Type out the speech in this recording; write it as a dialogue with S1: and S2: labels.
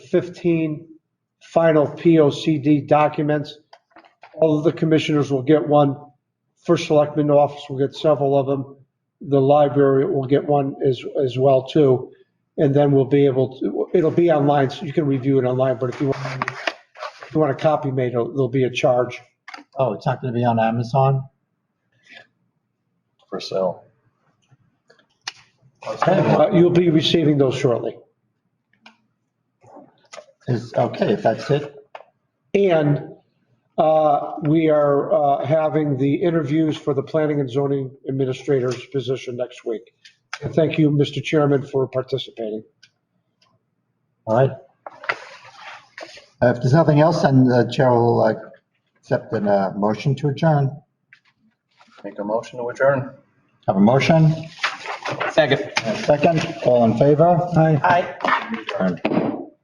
S1: 15 final P O C D documents. All of the commissioners will get one. First Selectman Office will get several of them. The library will get one as, as well too. And then we'll be able to, it'll be online, so you can review it online, but if you want, if you want a copy made, there'll there'll be a charge.
S2: Oh, it's not gonna be on Amazon?
S3: for sale.
S2: Okay,
S1: Uh, You'll be receiving those shortly.
S2: is, okay, if that's it,
S1: And uh, we are uh, having the interviews for the planning and zoning administrator's position next week. And Thank you, Mr. Chairman, for participating.
S2: all right. Uh, If there's nothing else, then the chair will uh, accept a uh, motion to adjourn.
S3: Make a motion to adjourn.
S2: Have a motion? Second. Second, all in favor? Aye. Aye.